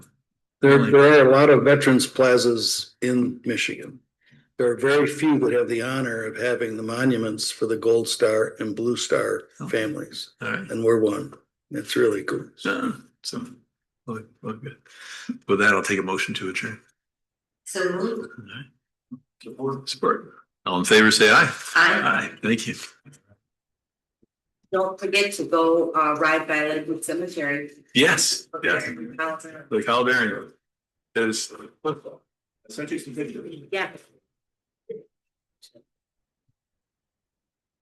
There, there are a lot of veterans plazas in Michigan. There are very few that have the honor of having the monuments for the Gold Star and Blue Star Oh. families, All right. and we're one. It's really cool. So, so, look, look good. With that, I'll take a motion to adjourn. So moved. All right. Support. All in favor, say aye. Aye. Aye, thank you. Don't forget to go uh ride by Lakewood Cemetery. Yes, yes. Okay. The Calvary. That is. Sent you some video. Yeah.